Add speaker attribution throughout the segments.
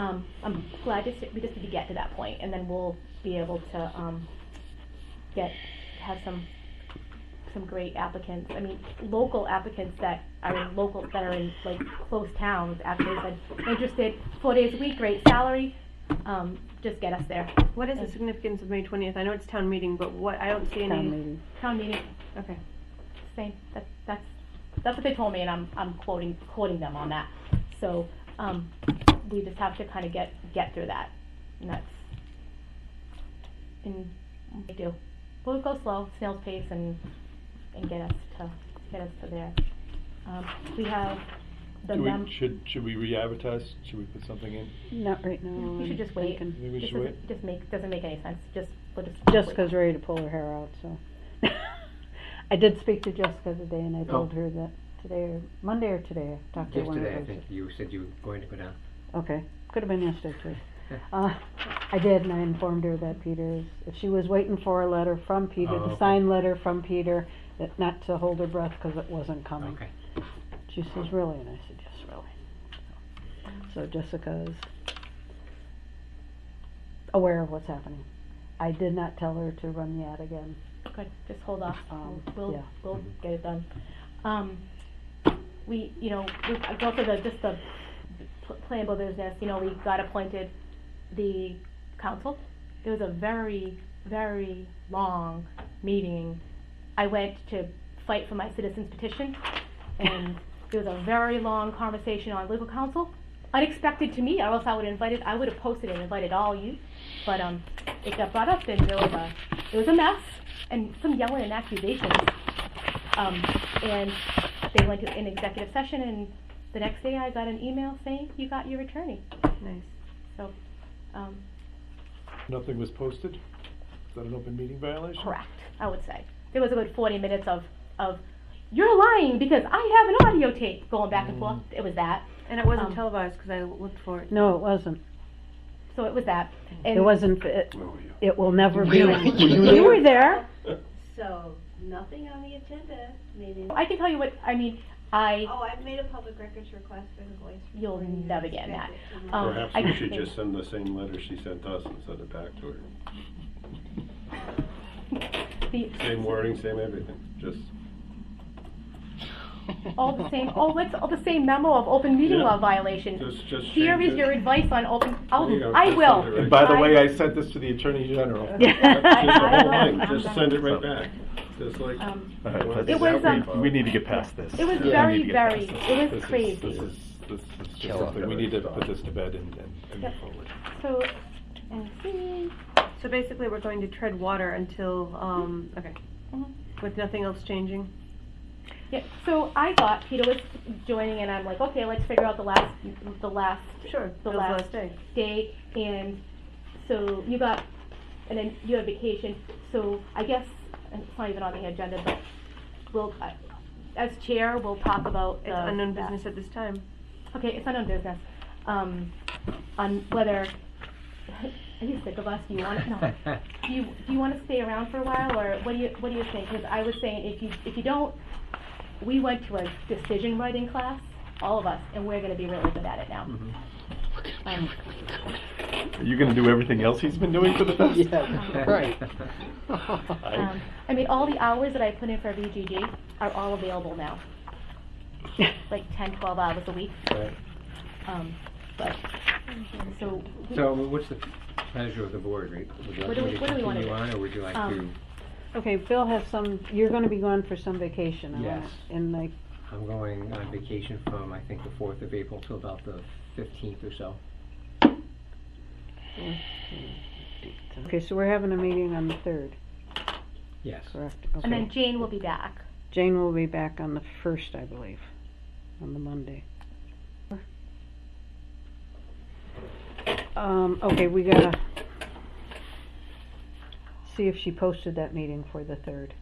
Speaker 1: um, I'm glad to, s- we just need to get to that point, and then we'll be able to, um, get, have some, some great applicants. I mean, local applicants that are in local, that are in like close towns, actually, but interested, four days a week, great salary, um, just get us there.
Speaker 2: What is the significance of May twentieth? I know it's town meeting, but what, I don't see
Speaker 3: town
Speaker 2: any,
Speaker 3: meeting.
Speaker 1: Town meeting,
Speaker 2: okay.
Speaker 1: same, that's, that's, that's what they told me, and I'm, I'm quoting, quoting them on that. So, um, we just have to kind of get, get through that, and that's, and we do. We'll go slow, snail's pace, and, and get us to, get us to there. Um, we have the
Speaker 4: Do we-
Speaker 1: mem-
Speaker 4: Should, should we re-advertise? Should we put something in?
Speaker 3: Not right now.
Speaker 1: We should
Speaker 3: I'm
Speaker 1: just wait.
Speaker 3: thinking.
Speaker 4: Maybe we
Speaker 1: Just
Speaker 4: should wait?
Speaker 1: doesn't, just make, doesn't make any sense, just, we'll just.
Speaker 3: Jessica's ready to pull her hair out, so. I did speak to Jessica today and I
Speaker 5: Oh.
Speaker 3: told her that today, or Monday or today, I talked to her one of
Speaker 5: Yesterday, I
Speaker 3: those-
Speaker 5: think you said you were going to go down.
Speaker 3: Okay, could have been yesterday too. Uh, I did and I informed her that Peter's, if she was waiting for a letter from Peter,
Speaker 5: Oh,
Speaker 3: the
Speaker 5: okay.
Speaker 3: signed letter from Peter, that not to hold her breath because it wasn't
Speaker 1: Oh,
Speaker 3: coming.
Speaker 5: Okay.
Speaker 3: She says, really? And I said, yes, really. So Jessica is aware of what's happening. I did not tell her to run the ad again.
Speaker 1: Good, just hold off,
Speaker 3: Um,
Speaker 1: We'll- we'll,
Speaker 3: yeah.
Speaker 1: we'll get it done. Um, we, you know, we, I go for the, just the pl- playable business, you know, we got appointed the council. It was a very, very long meeting. I went to fight for my citizens petition, and there was a very long conversation on legal counsel. Unexpected to me, or else I would have invited, I would have posted and invited all you, but, um, it got brought up, and there was a, it was a mess, and some yelling and accusations. Um, and they went to an executive session, and the next day I got an email saying, you got your attorney.
Speaker 2: Nice.
Speaker 1: So, um,
Speaker 4: Nothing was posted? Is that an open meeting violation?
Speaker 1: correct, I would say. There was a good forty minutes of, of, you're lying because I have an audio tape going back and forth. It was that,
Speaker 2: And it wasn't
Speaker 1: Um,
Speaker 2: televised, cause I looked for it.
Speaker 3: No, it wasn't.
Speaker 1: so it was that. And
Speaker 3: It wasn't, it, it will never be.
Speaker 5: Really? Were you
Speaker 3: You were there.
Speaker 6: So, nothing on the agenda, meaning,
Speaker 1: I can tell you what, I mean, I,
Speaker 6: oh, I've made a public records request for the voice.
Speaker 1: You'll
Speaker 6: recording.
Speaker 1: never get that.
Speaker 6: Expect it to
Speaker 1: um, I
Speaker 7: Perhaps we
Speaker 1: can-
Speaker 7: should just send the same letter she sent us and send it back to her.
Speaker 1: the,
Speaker 7: Same wording, same everything, just.
Speaker 1: all the same, oh, what's all the same memo of open meeting
Speaker 7: Yeah.
Speaker 1: law violation?
Speaker 7: Just- just
Speaker 1: Here
Speaker 7: change
Speaker 1: is
Speaker 7: it.
Speaker 1: your advice on open, I'll,
Speaker 7: There you go,
Speaker 1: I
Speaker 7: just
Speaker 1: will.
Speaker 7: send it
Speaker 4: And
Speaker 7: right
Speaker 4: by the
Speaker 1: I-
Speaker 4: way, I sent this to the Attorney General.
Speaker 7: Just the
Speaker 1: I
Speaker 7: whole
Speaker 1: don't
Speaker 7: thing,
Speaker 1: know.
Speaker 7: Just send it right back, just like.
Speaker 1: Um,
Speaker 7: It
Speaker 1: It was, um,
Speaker 4: We need to get past this.
Speaker 1: It was
Speaker 7: Yeah.
Speaker 4: We
Speaker 1: very,
Speaker 4: need to get
Speaker 1: very,
Speaker 4: past this.
Speaker 1: it
Speaker 4: This
Speaker 1: was
Speaker 4: is-
Speaker 1: crazy.
Speaker 4: This is, this is just
Speaker 5: Kill
Speaker 4: something, we need to
Speaker 7: off.
Speaker 4: put this to bed and, and- and move
Speaker 1: Yep.
Speaker 4: forward.
Speaker 1: So, and see,
Speaker 2: So basically, we're going to tread water until, um, okay.
Speaker 1: Mhm.
Speaker 3: Mm-hmm.
Speaker 2: With nothing else changing?
Speaker 1: yeah, so I thought Peter was joining and I'm like, okay, let's figure out the last, the last
Speaker 2: Sure.
Speaker 1: The
Speaker 2: that was
Speaker 1: last-
Speaker 2: day.
Speaker 1: day and so you got, and then you had vacation, so I guess, and it's not even on the agenda, but we'll, I- as chair, we'll talk about
Speaker 2: It's
Speaker 3: Uh,
Speaker 1: the-
Speaker 2: unknown
Speaker 1: that.
Speaker 2: business at this time.
Speaker 1: Okay, it's unknown business, um, on whether, are you sick of us, do you want, no. do you, do you want to stay around for a while, or what do you, what do you think? Because I was saying, if you, if you don't, we went to a decision writing class, all of us, and we're gonna be really good at it now. Um,
Speaker 4: Are you gonna do everything else he's been doing for the past?
Speaker 3: Yeah, right.
Speaker 1: um, I mean, all the hours that I put in for VGG are all available now, like 10, 12 hours a week,
Speaker 5: Right.
Speaker 1: um, but, so. we-
Speaker 5: So what's the pleasure of the board? Would you
Speaker 1: What
Speaker 5: like
Speaker 1: do we-
Speaker 5: me to
Speaker 1: what do we wanna
Speaker 5: continue
Speaker 1: do?
Speaker 5: on, or would you like to,
Speaker 1: Um,
Speaker 3: Okay, Phil has some, you're gonna be gone for some vacation. I wanna-
Speaker 5: Yes.
Speaker 3: And like,
Speaker 5: I'm going on vacation from, I think, the 4th of April till about the 15th or so.
Speaker 3: okay, so we're having a meeting on the third,
Speaker 5: Yes.
Speaker 3: correct?
Speaker 1: And then
Speaker 3: Okay.
Speaker 1: Jane will be back.
Speaker 3: Jane will be back on the first, I believe, on the Monday. Um, okay, we gotta see if she posted that meeting for the third.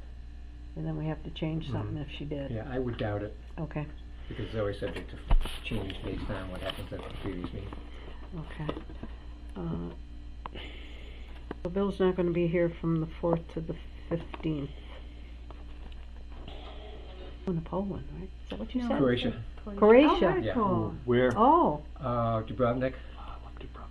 Speaker 3: And then we have to change something if she did.
Speaker 5: Mm-hmm. Yeah, I would doubt it,
Speaker 3: Okay,
Speaker 5: because it's always subject to change based on what happens at the previous meeting.
Speaker 3: okay. Uh, so Bill's not gonna be here from the fourth to the fifteenth. Going to Poland, right? Is that what you said?
Speaker 5: Croatia,
Speaker 3: Croatia?
Speaker 2: Oh, very
Speaker 5: Yeah.
Speaker 2: cool.
Speaker 4: Where?
Speaker 3: Oh,
Speaker 5: uh, Dubrovnik,